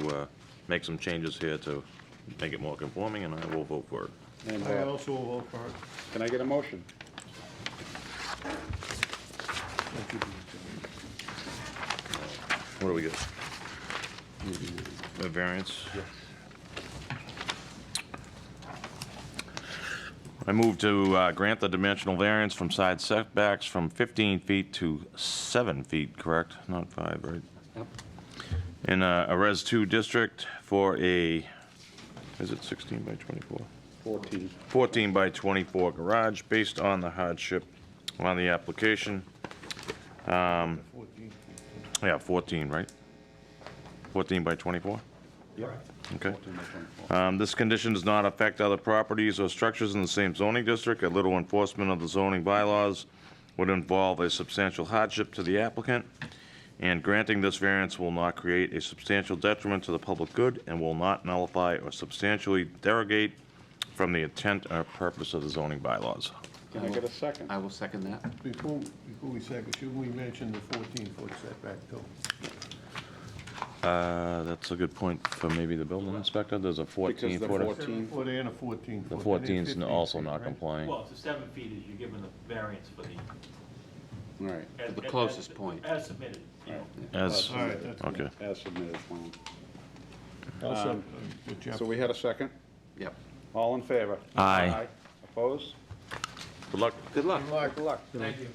uh, make some changes here to make it more conforming, and I will vote for it. And I uh, also will vote for it. can I get a motion? What do we get? A variance? I move to uh, grant the dimensional variance from side setbacks from 15 feet to 7 feet, correct? Not 5, right? Yep. In uh, a Res 2 district for a, is it 16 by 24? 14. 14 by 24 garage, based on the hardship on the application. Um, Yeah, 14, right? 14 by 24? Yep. Okay. 14 by 24. Um, This condition does not affect other properties or structures in the same zoning district. A little enforcement of the zoning bylaws would involve a substantial hardship to the applicant, and granting this variance will not create a substantial detriment to the public good and will not nullify or substantially derogate from the intent or purpose of the zoning bylaws. Can I get a second? Uh, I will second that. Before, before we second, should we mention the 14-foot setback too? Uh, That's a good point for maybe the building inspector. There's a Because the 14-foot. 14, Foot and a 14-foot. The 14's also not complete. complying. Well, it's the seven feet is you're given the variance for the. all right, as- the as- closest as- point. As submitted, you know. As, All right, that's good. okay. as submitted, Tom. I'll second what Um, Jeff So we had a second? Yep. All in favor? Aye. Opposed? Good luck. Good luck. Good luck. Thank you.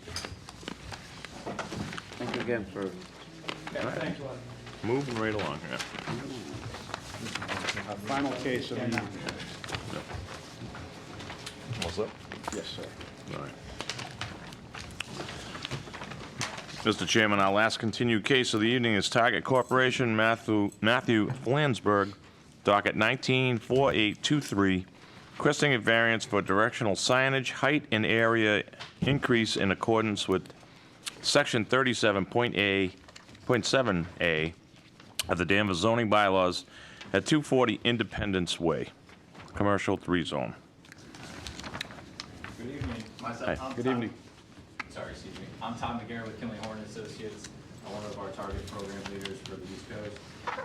Thank you again for, Thank you. Moving right along here. Our final case of the evening. What's up? Yes, sir. All right. Mr. Chairman, our last continued case of the evening is Target Corporation, Matthew Matthew Flansburgh, docket 194823, requesting a variance for directional signage, height and area increase in accordance with Section 37.A.7A of the Danvers zoning bylaws at 240 Independence Way, Commercial 3 Zone. Good evening. Myself, Hi. I'm Good Tom- evening. Sorry, excuse me. I'm Tom McGarrett with Kinley Horn Associates, uh, one of our target program leaders for the East Coast.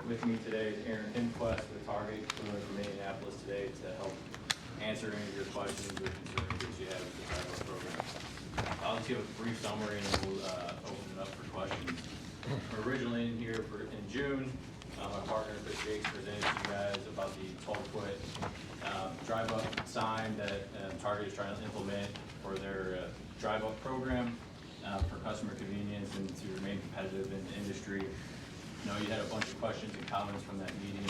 With me today is Aaron Himquist with Target, who are from Indianapolis today to help answer any of your questions or concerns that you have with the target program. I'll just give a brief summary and then we'll uh, open it up for questions. We're Originally in here for, in June, uh, my partner Chris Jakes presented to you guys about the twelve-foot uh, drive-up sign that uh, Target is trying to implement for their uh, drive-up program uh, for customer convenience and to remain competitive in the industry. I know you had a bunch of questions and comments from that meeting.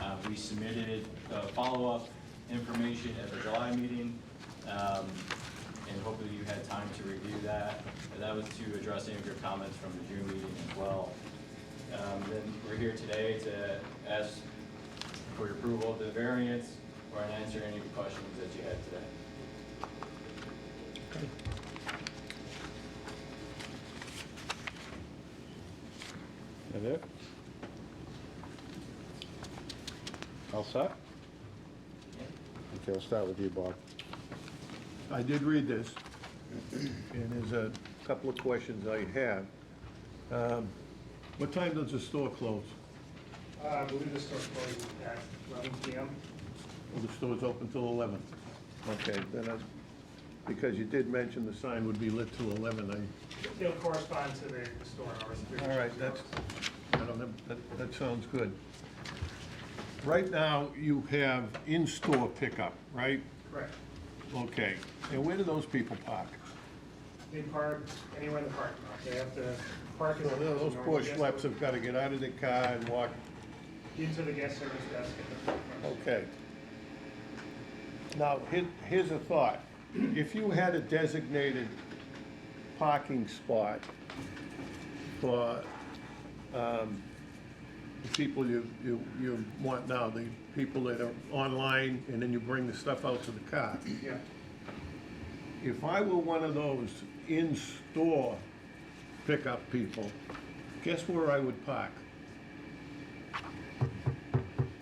Uh, We submitted uh, follow-up information at the July meeting, um, and hopefully you had time to review that. And That was to address any of your comments from the June meeting as well. Um, Then we're here today to ask for your approval of the variance or an answer any questions that you had today. That it? All set? Okay, we'll start with you, Bob. I did read this, and there's a couple of questions I have. Um, What time does the store close? Uh, I believe the store closes at eleven PM. Well, the store's open till 11? Okay, then, I- because you did mention the sign would be lit till 11, I, It'll correspond to the the store hours. the all right, business that's, hours. I don't know, that, that sounds good. Right now, you have in-store pickup, right? Correct. Okay, and where do those people park? They park anywhere in the parking lot. They have to park. in Well, the- Oh, Those poor schleps have got to get out of the car and walk, Into the guest service desk at the front. okay. Now, here- here's a thought. If you had a designated parking spot for um, the people you, you you want now, the people that are online, and then you bring the stuff out to the car. Yeah. If I were one of those in-store pickup people, guess where I would park?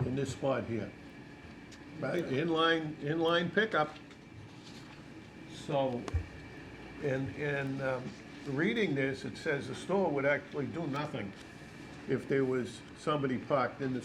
In this spot here. Right, inline, inline pickup. So, and, and um, reading this, it says the store would actually do nothing if there was somebody parked in the